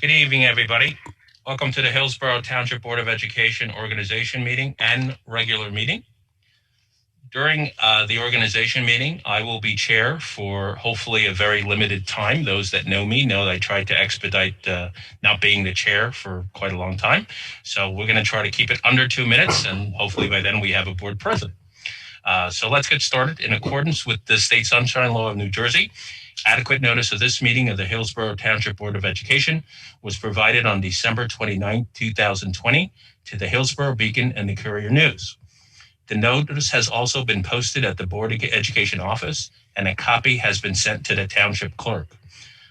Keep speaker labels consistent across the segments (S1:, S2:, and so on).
S1: Good evening, everybody. Welcome to the Hillsborough Township Board of Education Organization Meeting and Regular Meeting. During uh, the organization meeting, I will be chair for hopefully a very limited time. Those that know me know that I tried to expedite uh, not being the chair for quite a long time. So we're going to try to keep it under two minutes, and hopefully by then we have a board president. Uh, so let's get started. In accordance with the state sunshine law of New Jersey, Adequate notice of this meeting of the Hillsborough Township Board of Education was provided on December 29, 2020 to the Hillsborough Beacon and the Courier News. The notice has also been posted at the Board of Education office and a copy has been sent to the township clerk.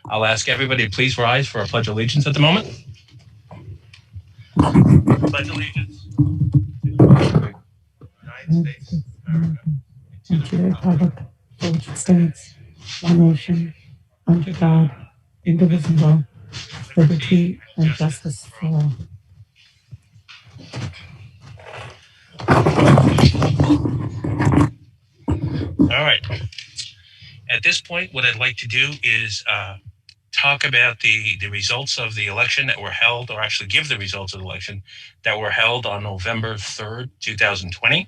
S1: I'll ask everybody to please rise for our pledge of allegiance at the moment. Pledge allegiance to the flag of the United States of America and to
S2: and
S1: the republic
S2: to the republic for which it stands, one nation, under God, indivisible, with liberty and justice for all.
S1: All right. At this point, what I'd like to do is uh, talk about the, the results of the election that were held, or actually give the results of the election that were held on November 3rd, 2020.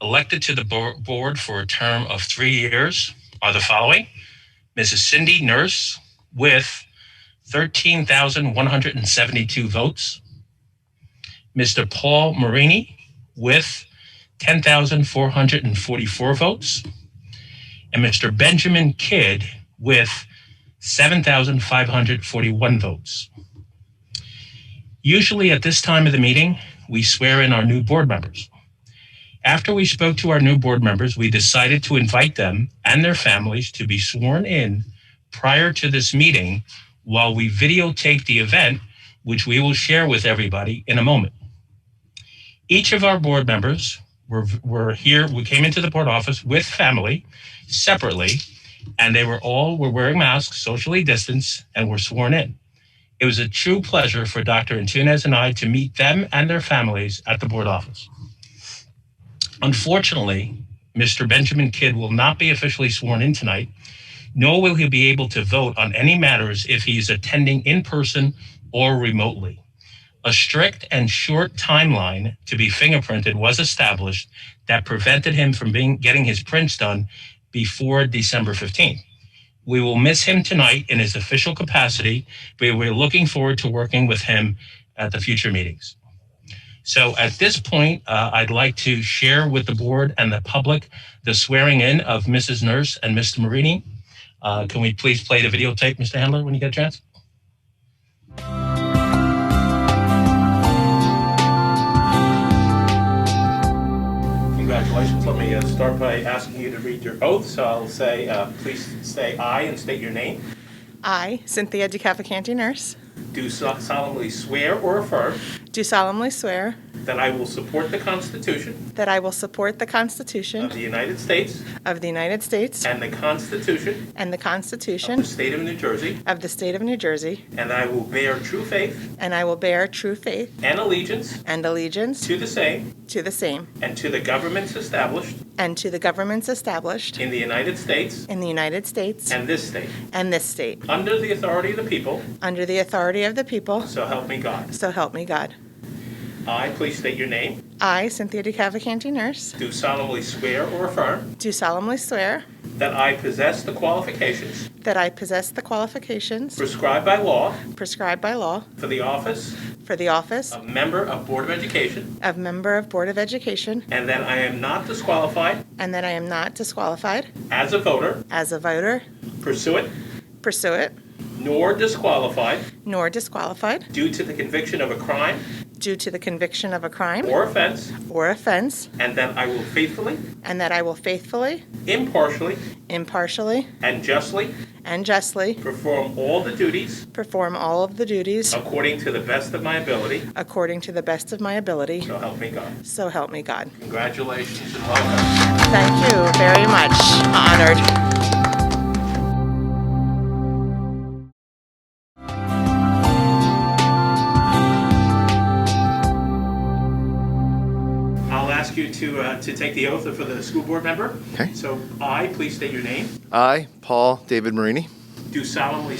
S1: Elected to the bo- board for a term of three years are the following Mrs. Cindy Nurse with 13,172 votes, Mr. Paul Marini with 10,444 votes, and Mr. Benjamin Kidd with 7,541 votes. Usually at this time of the meeting, we swear in our new board members. After we spoke to our new board members, we decided to invite them and their families to be sworn in prior to this meeting while we videotape the event, which we will share with everybody in a moment. Each of our board members were, were here, we came into the board office with family separately and they were all were wearing masks, socially distanced, and were sworn in. It was a true pleasure for Dr. Antunes and I to meet them and their families at the board office. Unfortunately, Mr. Benjamin Kidd will not be officially sworn in tonight, nor will he be able to vote on any matters if he is attending in person or remotely. A strict and short timeline to be fingerprinted was established that prevented him from being getting his prints done before December 15th. We will miss him tonight in his official capacity, but we're looking forward to working with him at the future meetings. So at this point, uh, I'd like to share with the board and the public the swearing in of Mrs. Nurse and Mr. Marini. Uh, can we please play the videotape, Mr. Handler, when you get a chance? Congratulations. Let me uh, start by asking you to read your oath. So I'll say, uh, please say aye and state your name.
S3: I, Cynthia DeCavalcanti Nurse,
S1: Do so- solemnly swear or affirm
S3: do solemnly swear
S1: that I will support the Constitution
S3: that I will support the
S1: of
S3: Constitution
S1: the United States
S3: of the United States
S1: and the Constitution
S3: and the
S1: of the
S3: Constitution
S1: State of New Jersey,
S3: of the State of New Jersey,
S1: and I will bear true faith
S3: and I will bear true faith
S1: and allegiance
S3: and allegiance
S1: to the same
S3: to the same
S1: and to the governments established
S3: and to the governments established
S1: in the United States
S3: in the United States
S1: and this state,
S3: and this state,
S1: under the authority of the people,
S3: under the authority of the people,
S1: so help me God.
S3: so help me God.
S1: I, please state your name,
S3: I, Cynthia DeCavalcanti Nurse,
S1: do solemnly swear or affirm
S3: do solemnly swear
S1: that I possess the qualifications
S3: that I possess the qualifications
S1: prescribed by law
S3: prescribed by law
S1: for the office
S3: for the office
S1: of Member of Board of Education,
S3: of Member of Board of Education
S1: and that I am not disqualified
S3: and that I am not disqualified
S1: as a voter,
S3: as a voter,
S1: pursuant,
S3: pursue it,
S1: nor disqualified
S3: nor disqualified
S1: due to the conviction of a crime
S3: due to the conviction of a crime
S1: or offense,
S3: or offense,
S1: and that I will faithfully,
S3: and that I will faithfully,
S1: impartially,
S3: impartially,
S1: and justly
S3: and justly
S1: perform all the duties
S3: perform all of the duties
S1: according to the best of my ability.
S3: according to the best of my ability.
S1: So help me God.
S3: So help me God.
S1: Congratulations and welcome.
S3: Thank you very much. Honored.
S1: I'll ask you to uh, to take the oath for the school board member.
S4: Okay.
S1: So I, please state your name,
S4: I, Paul David Marini,
S1: do solemnly